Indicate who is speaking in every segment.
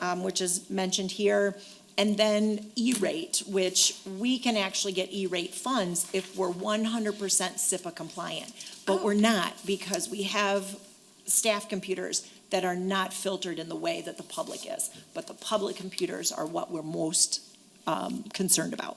Speaker 1: um, which is mentioned here, and then E-rate, which we can actually get E-rate funds if we're one hundred percent SIPA compliant. But we're not, because we have staff computers that are not filtered in the way that the public is. But the public computers are what we're most um, concerned about.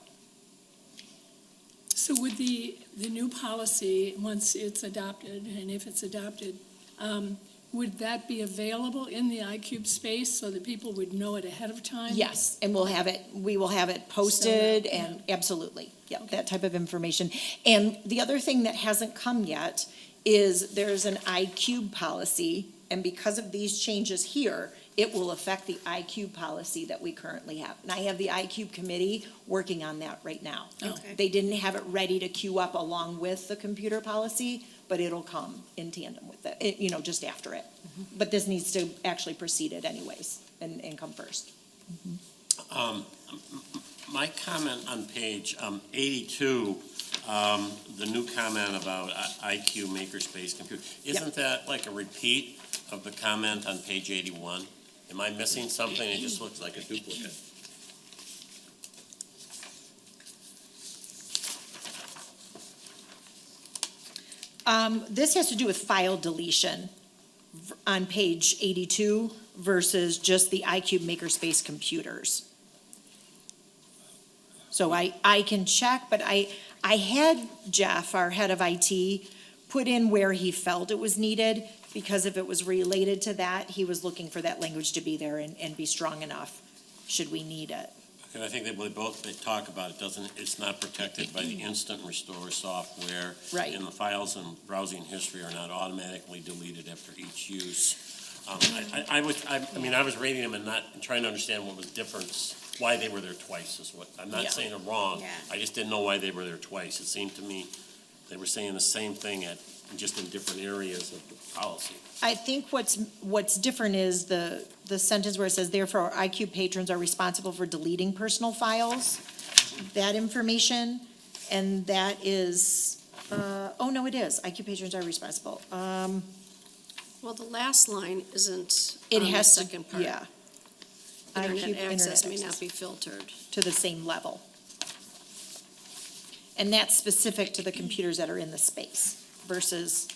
Speaker 2: So would the, the new policy, once it's adopted, and if it's adopted, um, would that be available in the iCube space so that people would know it ahead of time?
Speaker 1: Yes, and we'll have it, we will have it posted and absolutely, yeah, that type of information. And the other thing that hasn't come yet is there's an ICube policy, and because of these changes here, it will affect the ICube policy that we currently have. And I have the ICube committee working on that right now.
Speaker 2: Okay.
Speaker 1: They didn't have it ready to queue up along with the computer policy, but it'll come in tandem with it, it, you know, just after it.
Speaker 2: Mm-hmm.
Speaker 1: But this needs to actually precede it anyways, and, and come first.
Speaker 3: My comment on page um, 82, um, the new comment about uh, I- IQ Makerspace Computer, isn't that like a repeat of the comment on page 81? Am I missing something? It just looks like a duplicate.
Speaker 1: Um, this has to do with file deletion v- on page eighty-two versus just the iCube Makerspace computers. So I, I can check, but I, I had Jeff, our head of IT, put in where he felt it was needed, because if it was related to that, he was looking for that language to be there and, and be strong enough, should we need it.
Speaker 3: And I think they they both, they talk about it, doesn't, it's not protected by the instant restore software.
Speaker 1: Right.
Speaker 3: And the files and browsing history are not automatically deleted after each use. Um, I, I I was, I, I mean, I was reading them and not, trying to understand what was difference, why they were there twice is what, I'm
Speaker 1: Yeah.
Speaker 3: not saying they're wrong.
Speaker 4: Yeah.
Speaker 3: I just didn't know why they were there twice. It seemed to me they were saying the same thing at, just in different areas of the policy.
Speaker 1: I think what's, what's different is the, the sentence where it says, therefore, our IQ patrons are responsible for deleting personal files, that information, and that is, uh, oh, no, it is, IQ patrons are responsible.
Speaker 4: Uh,
Speaker 1: Um,
Speaker 4: Well, the last line isn't
Speaker 1: it
Speaker 4: on the
Speaker 1: has to,
Speaker 4: second part.
Speaker 1: yeah. IQ
Speaker 4: Internet access may
Speaker 1: access.
Speaker 4: not be filtered.
Speaker 1: to the same level. And that's specific to the computers that are in the space versus,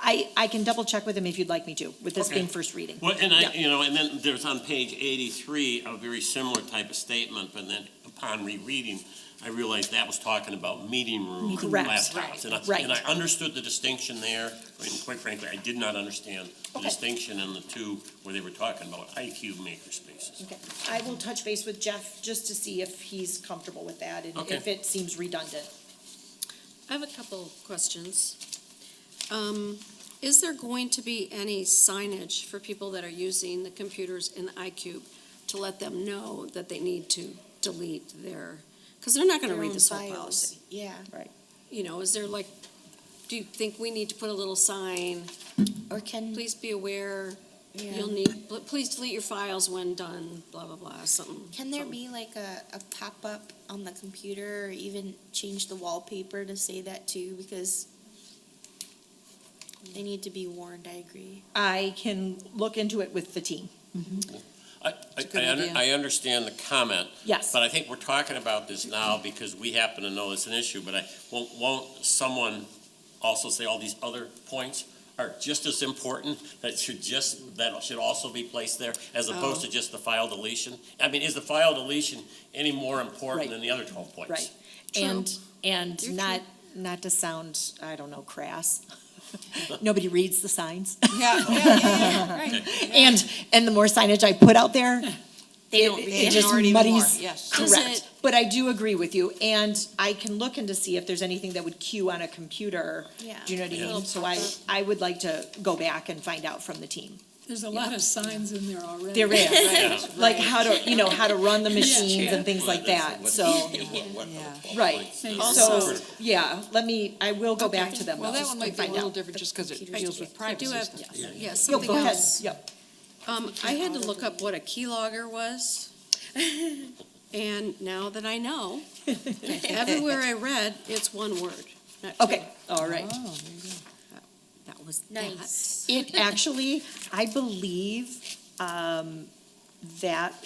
Speaker 1: I, I can double check with him if you'd like me to, with this
Speaker 3: Okay.
Speaker 1: being first reading.
Speaker 3: Well, and I,
Speaker 1: Yeah.
Speaker 3: you know, and then there's on page eighty-three, a very similar type of statement, but then upon rereading, I realized that was talking about meeting room
Speaker 1: Correct.
Speaker 3: laptops. And I,
Speaker 1: Right.
Speaker 3: and I understood the distinction there, and quite frankly, I did not understand the
Speaker 1: Okay.
Speaker 3: distinction in the two where they were talking about IQ makerspaces.
Speaker 1: Okay, I will touch base with Jeff just to see if he's comfortable with that and if
Speaker 3: Okay.
Speaker 1: it seems redundant.
Speaker 4: I have a couple questions. Um, Is there going to be any signage for people that are using the computers in the iCube to let them know that they need to delete their, because they're not going to read this whole policy.
Speaker 1: Yeah. Right.
Speaker 4: You know, is there like, do you think we need to put a little sign,
Speaker 1: Or can,
Speaker 4: please be aware,
Speaker 5: Yeah.
Speaker 4: you'll need, please delete your files when done, blah, blah, blah, something.
Speaker 5: Can there
Speaker 4: something.
Speaker 5: be like a, a pop-up on the computer or even change the wallpaper to say that too? Because they need to be warned, I agree.
Speaker 1: I can look into it with the team.
Speaker 3: I, I,
Speaker 4: good
Speaker 3: I under-
Speaker 4: idea.
Speaker 3: I understand the comment,
Speaker 1: Yes.
Speaker 3: But I think we're talking about this now because we happen to know it's an issue, but I, won't, won't someone also say all these other points are just as important, that should just, that should also be placed there, as opposed
Speaker 1: Oh.
Speaker 3: to just the file deletion? I mean, is the file deletion any more important than the other twelve points?
Speaker 1: Right.
Speaker 4: True.
Speaker 1: And,
Speaker 4: You're
Speaker 1: and not, not to sound, I don't know, crass. Nobody reads the signs.
Speaker 4: Yeah, yeah, yeah, right.
Speaker 1: And, and the more signage I put out there,
Speaker 6: They
Speaker 1: it-
Speaker 6: don't read
Speaker 1: it
Speaker 6: it
Speaker 1: just
Speaker 6: or even more,
Speaker 1: muddies-
Speaker 6: yes.
Speaker 4: Does
Speaker 1: Correct,
Speaker 4: it-
Speaker 1: but I do agree with you, and I can look into see if there's anything that would queue on a computer.
Speaker 5: Yeah.
Speaker 1: Do you know what I
Speaker 3: Yeah.
Speaker 1: mean? So I, I would like to go back and find out from the team.
Speaker 2: There's a lot of signs in there already.
Speaker 1: There is, like how to, you know, how to run the machines
Speaker 2: Yeah.
Speaker 1: and things like that, so, right. So,
Speaker 4: Also-
Speaker 1: yeah, let me, I will go back to them.
Speaker 6: Well, that
Speaker 1: just
Speaker 6: one
Speaker 1: to
Speaker 6: might be a
Speaker 1: find
Speaker 6: little
Speaker 1: out.
Speaker 6: different just because it
Speaker 5: Computers
Speaker 6: deals
Speaker 5: do
Speaker 6: with
Speaker 4: I
Speaker 6: privacy
Speaker 4: do have,
Speaker 6: stuff.
Speaker 4: yeah,
Speaker 1: Yep,
Speaker 4: something
Speaker 1: go ahead,
Speaker 4: else.
Speaker 1: yep.
Speaker 4: Um, I had to look up what a keylogger was. And now that I know, everywhere I read, it's one word. not two.
Speaker 1: Okay, all right.
Speaker 6: Oh, there you go.
Speaker 4: That was that.
Speaker 5: Nice.
Speaker 1: It actually, I believe, um, that